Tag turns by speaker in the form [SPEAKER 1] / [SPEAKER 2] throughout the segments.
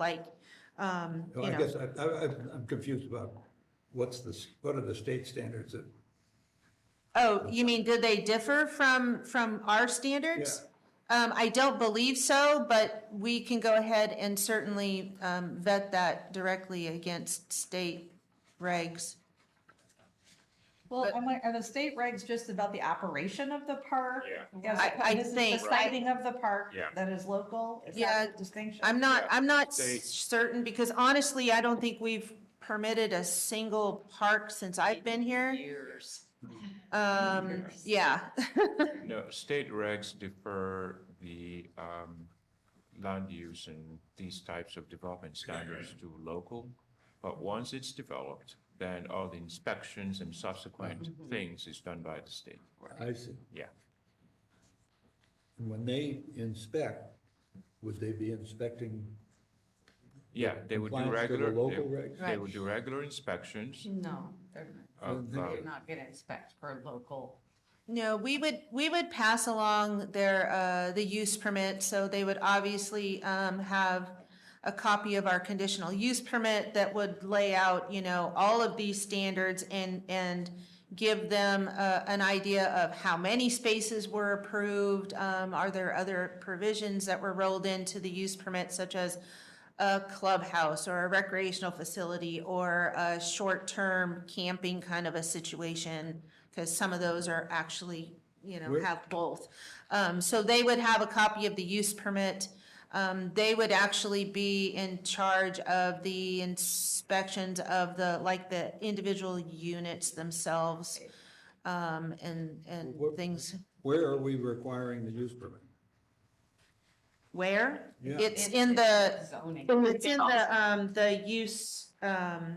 [SPEAKER 1] like, um,
[SPEAKER 2] Well,
[SPEAKER 1] you
[SPEAKER 2] I
[SPEAKER 1] know,
[SPEAKER 2] guess I, I, I'm- I'm confused about what's the, s- what are the state standards that?
[SPEAKER 1] oh, you mean, did they differ from, from our standards? Um, I don't believe so, but we can go ahead and certainly, um, vet that directly against state regs.
[SPEAKER 3] Well, I'm like, are the state regs just about the operation of the park?
[SPEAKER 4] Yeah.
[SPEAKER 3] Yes,
[SPEAKER 1] I- I
[SPEAKER 3] this is the
[SPEAKER 1] think-
[SPEAKER 3] sighting of the park
[SPEAKER 4] Yeah.
[SPEAKER 3] that is local, is
[SPEAKER 1] Yeah,
[SPEAKER 3] that the distinction?
[SPEAKER 1] I'm not, I'm not
[SPEAKER 4] They-
[SPEAKER 1] s- certain, because honestly, I don't think we've permitted a single park since I've been here.
[SPEAKER 5] Years.
[SPEAKER 1] Um, yeah,
[SPEAKER 4] No, state regs defer the um, land use and these types of development standards to local. But once it's developed, then all the inspections and subsequent
[SPEAKER 2] Mm-hmm.
[SPEAKER 4] things is done by the state.
[SPEAKER 2] I see.
[SPEAKER 4] Yeah.
[SPEAKER 2] And When they inspect, would they be inspecting?
[SPEAKER 4] Yeah, they would do
[SPEAKER 2] Compliance to the
[SPEAKER 4] regular,
[SPEAKER 2] local
[SPEAKER 4] they-
[SPEAKER 2] regs?
[SPEAKER 4] they would do regular inspections.
[SPEAKER 5] No, they're
[SPEAKER 4] of,
[SPEAKER 2] Mhm.
[SPEAKER 4] uh,
[SPEAKER 5] they're not gonna inspect for local.
[SPEAKER 1] No, we would, we would pass along their, uh, the use permit, so they would obviously, um, have a copy of our conditional use permit that would lay out, you know, all of these standards and, and give them, uh, an idea of how many spaces were approved, um, are there other provisions that were rolled into the use permit such as a clubhouse or a recreational facility or a short-term camping kind of a situation, because some of those are actually, you know,
[SPEAKER 2] Where-
[SPEAKER 1] have both. Um, so they would have a copy of the use permit. Um, they would actually be in charge of the inspections of the, like, the individual units themselves, um, and, and
[SPEAKER 2] Where-
[SPEAKER 1] things.
[SPEAKER 2] Where are we requiring the use permit?
[SPEAKER 1] Where?
[SPEAKER 2] Yeah.
[SPEAKER 1] It's in the,
[SPEAKER 5] Zoning,
[SPEAKER 1] it's in the, um, the use, um,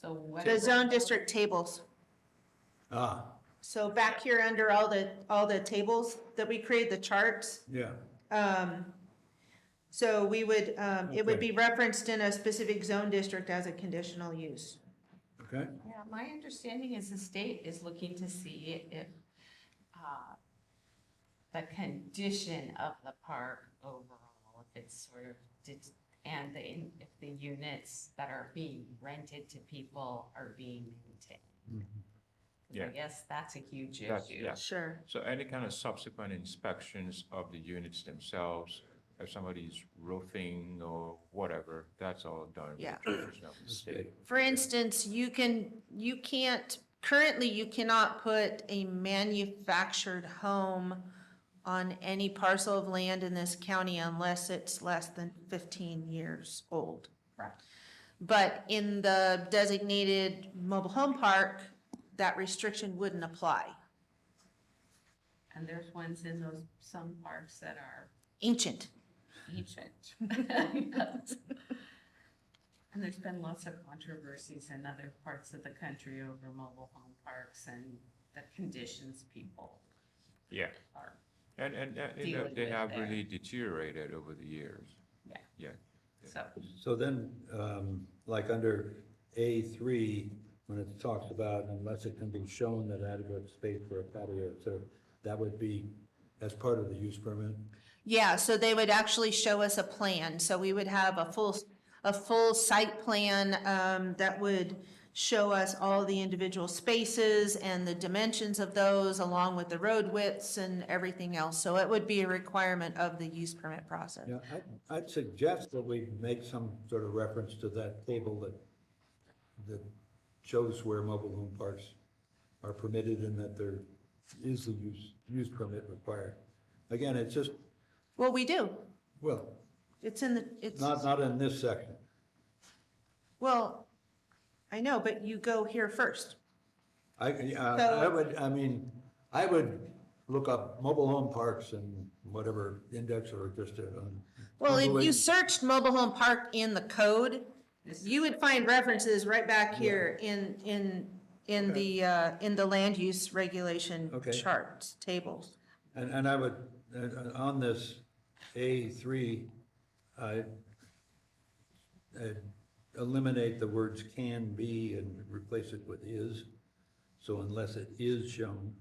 [SPEAKER 5] so what.
[SPEAKER 1] the zone district tables.
[SPEAKER 2] Ah,
[SPEAKER 1] So back here under all the, all the tables that we create, the charts,
[SPEAKER 2] yeah,
[SPEAKER 1] um, so we would, um, it would be referenced in a specific zone district as a conditional use.
[SPEAKER 2] okay.
[SPEAKER 5] Yeah, my understanding is the state is looking to see if, uh, the condition of the park overall, if it's sort of, det- and the, in- if the units that are being rented to people are being maintained.
[SPEAKER 4] Mm-hmm. Yeah.
[SPEAKER 5] I guess that's a huge
[SPEAKER 4] That's-
[SPEAKER 5] issue.
[SPEAKER 4] yeah.
[SPEAKER 1] Sure.
[SPEAKER 4] So any kind of subsequent inspections of the units themselves, if somebody's roofing or whatever, that's all done. with
[SPEAKER 1] Yeah.
[SPEAKER 4] personnel from the state.
[SPEAKER 1] For instance, you can, you can't, currently you cannot put a manufactured home on any parcel of land in this county unless it's less than fifteen years old.
[SPEAKER 5] Correct.
[SPEAKER 1] But in the designated mobile home park, that restriction wouldn't apply.
[SPEAKER 5] And there's ones in those, some parks that are
[SPEAKER 1] Ancient.
[SPEAKER 5] ancient. And there's been lots of controversies in other parts of the country over mobile home parks and the conditions people
[SPEAKER 4] Yeah.
[SPEAKER 5] are.
[SPEAKER 4] And, and, uh, you know,
[SPEAKER 5] dealing
[SPEAKER 4] they
[SPEAKER 5] with
[SPEAKER 4] have
[SPEAKER 5] there.
[SPEAKER 4] really deteriorated over the years.
[SPEAKER 5] Yeah.
[SPEAKER 4] Yeah.
[SPEAKER 5] So
[SPEAKER 2] So then, um, like under A three, when it talks about unless it can be shown that adequate space for a patio, so that would be, as part of the use permit?
[SPEAKER 1] Yeah, so they would actually show us a plan, so we would have a full, a full site plan, um, that would show us all the individual spaces and the dimensions of those, along with the road widths and everything else, so it would be a requirement of the use permit process.
[SPEAKER 2] Yeah, I, I'd suggest that we make some sort of reference to that table that, that shows where mobile home parks are permitted and that there is a use, use permit required. Again, it's just,
[SPEAKER 1] Well, we do,
[SPEAKER 2] well,
[SPEAKER 1] it's in the, it's,
[SPEAKER 2] not, not in this section.
[SPEAKER 1] well, I know, but you go here first.
[SPEAKER 2] I, yeah, I
[SPEAKER 1] So-
[SPEAKER 2] would, I mean, I would look up mobile home parks and whatever index or just uh, on.
[SPEAKER 1] Well, if
[SPEAKER 2] Google
[SPEAKER 1] you
[SPEAKER 2] it.
[SPEAKER 1] searched mobile home park in the code,
[SPEAKER 5] this
[SPEAKER 1] You would find references right back here in, in, in the, uh, in the land use regulation
[SPEAKER 2] Okay.
[SPEAKER 1] charts, tables.
[SPEAKER 2] And, and I would, and- and on this A three, I, I'd eliminate the words can be and replace it with is. So unless it is shown,